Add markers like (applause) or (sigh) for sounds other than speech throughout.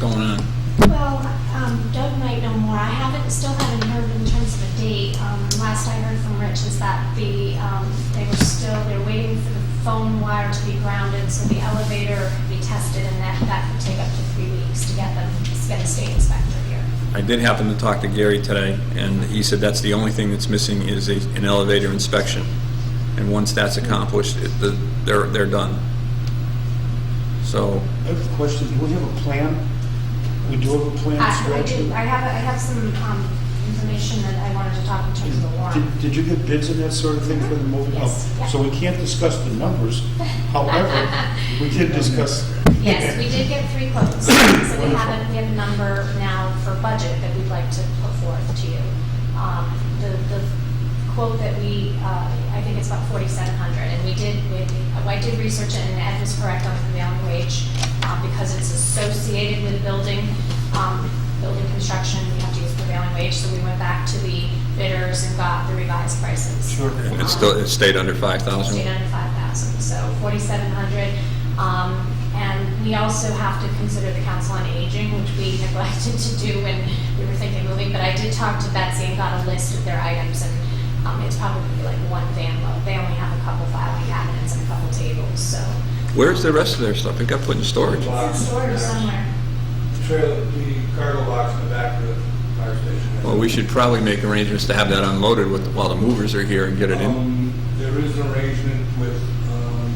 going on? Well, um, Doug might know more. I haven't, still haven't heard in terms of a date. Um, last I heard from Rich is that the, um, they were still, they're waiting for the phone wire to be grounded, so the elevator could be tested, and that, that could take up to three weeks to get them, to get a state inspector here. I did happen to talk to Gary today, and he said that's the only thing that's missing is a, an elevator inspection. And once that's accomplished, it, the, they're, they're done. So, I have a question, do we have a plan? We do have a plan I, I do, structured? I have, I have some, um, information that I wanted to talk in terms of the warrant. Did- Did you get bids and that sort of thing for the moving? Oh, Yes, yeah. So we can't discuss the numbers, however, (laughs) we did discuss. Yes, we did get three quotes, so we have a, we have a number now for budget that we'd like to put forth to you. Um, The, the quote that we, uh, I think it's about forty-seven hundred, and we did, we, I did research it, and Ed was correct on the prevailing wage, uh, because it's associated with building, um, building construction, we have to use prevailing wage, so we went back to the bidders and got the revised prices. Sure. and it's still, it stayed under five Stayed thousand. under 5,000, so 4,700. Um, And we also have to consider the Council on Aging, which we (laughs) neglected to do when we were thinking moving, but I did talk to Betsy and got a list of their items, and um, it's probably like one van load. They only have a couple filing cabinets and a couple tables, so Where's the rest of their stuff? It got put in storage. it's in storage somewhere. Trailer, the cargo box in the back of the fire station. Well, we should probably make arrangements to have that unloaded with, while the movers are here and get it in. Um, There is an arrangement with, um,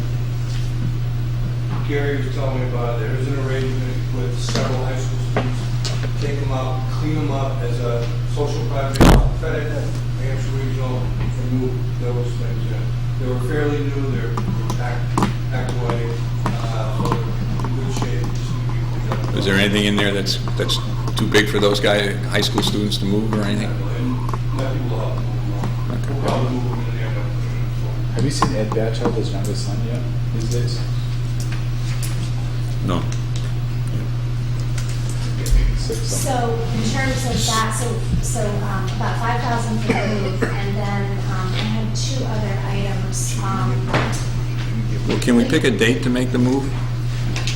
Gary was telling me about, it. there is an arrangement with several high school students. Take them out, clean them up as a social project, FedEx, Hampshire Regional, and move those things in. They were fairly new, they're packed, packed away, uh, so they're in good shape. just need to be cleaned up. Is there anything in there that's, that's too big for those guy, high school students to move or anything? And nothing will help move them. We'll probably move them in the end of the fall. Have you seen Ed Batchel, his youngest son, yet these days? No. Six, something. So in terms of that, so, so um, about five thousand for the move, and then um, I had two other items. um, Well, can we pick a date to make the move?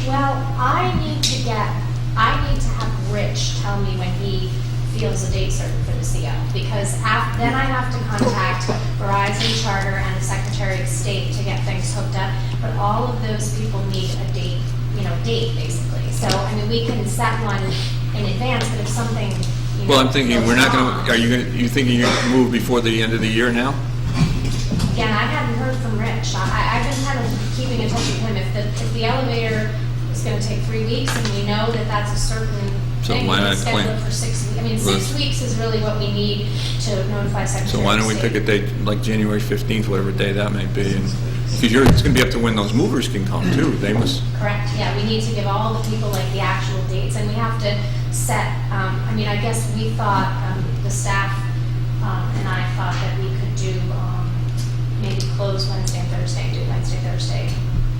Well, I need to get, I need to have Rich tell me when he feels a date certain for the CO, because af, then I have to contact Verizon Charter and the Secretary of State to get things hooked up, but all of those people need a date, you know, date, basically. So, I mean, we can set one in advance, but if something, you know. Well, I'm thinking, goes we're not wrong- gonna, are you gonna, you thinking you're gonna move before the end of the year now? Again, I hadn't heard from Rich. I, I- I've been kind of keeping in touch with him. If the, if the elevator is gonna take three weeks and we know that that's a certain So thing, we why can not schedule plan? it for six, we- I mean, six Let's- weeks is really what we need to notify So Secretary why of don't we State. pick a date, like January 15th, whatever day that may be? and- Because you're, it's gonna be up to when those movers can come too. They must, Correct, yeah, we need to give all the people like the actual dates, and we have to set, um, I mean, I guess we thought, um, the staff, um, and I thought that we could do, um, maybe close Wednesday and Thursday, do Wednesday, Thursday,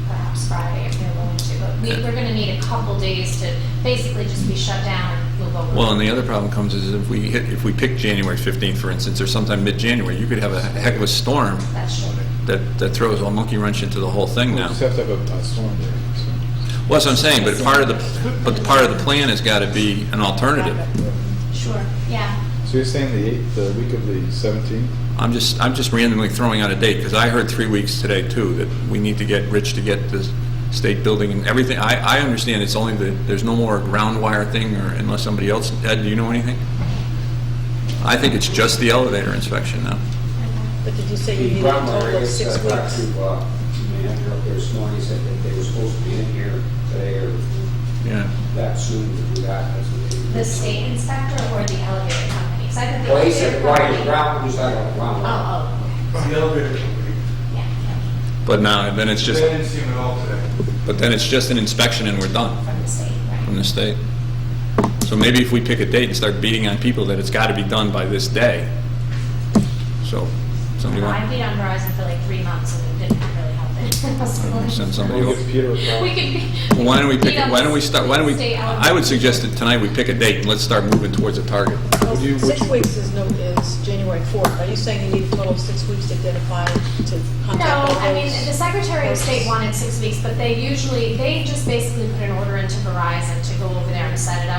perhaps Friday if they're willing to, but we, we're gonna need a couple days to basically just be shut down and move over. well, and the other problem comes is if we hit, if we pick January 15th, for instance, or sometime mid-January, you could have a heck of a storm That's true. that, that throws a monkey wrench into the whole thing We now. just have to have a- a storm there. so. Well, that's what I'm saying, but part of the, but part of the plan has gotta be an alternative. Sure, yeah. So you're saying the eighth, the week of the seventeenth? I'm just, I'm just randomly throwing out a date, because I heard three weeks today, too, that we need to get Rich to get the state building and everything. I, I understand it's only the, there's no more ground wire thing, or unless somebody else, Ed, do you know anything? I think it's just the elevator inspection now. But did you say you The needed a total primary of is, six uh, talked weeks? to, uh, the man here up there this morning, he said that they were supposed to be in here today or Yeah. that soon to do that. That's what they- The state inspector or the elevator company? 'Cause I thought the Well, he elevator said, why, company- Brown, who's that, Brown? Oh, The elevator company, oh, yeah, yeah, But now, then it's they just, didn't see him at all today. but then it's just an inspection and we're done from the state, right? from the state. So maybe if we pick a date and start beating on people that it's gotta be done by this day. So, somebody I've want, been on Verizon for like three months and it didn't (laughs) really help. send (laughs) somebody We'll over. give Peter a call. We could. be- Well, Why don't we pick, beat up why don't we start, why don't we, state I would elevator. suggest that tonight we pick a date and let's start moving towards a target. Well, Six Oh, weeks is no, is is January 4th. Are you saying you need a total of six weeks to identify, to No, contact all I mean, those? the Secretary of State wanted six weeks, but they usually, they just basically put an order into Verizon to go over there and set it up.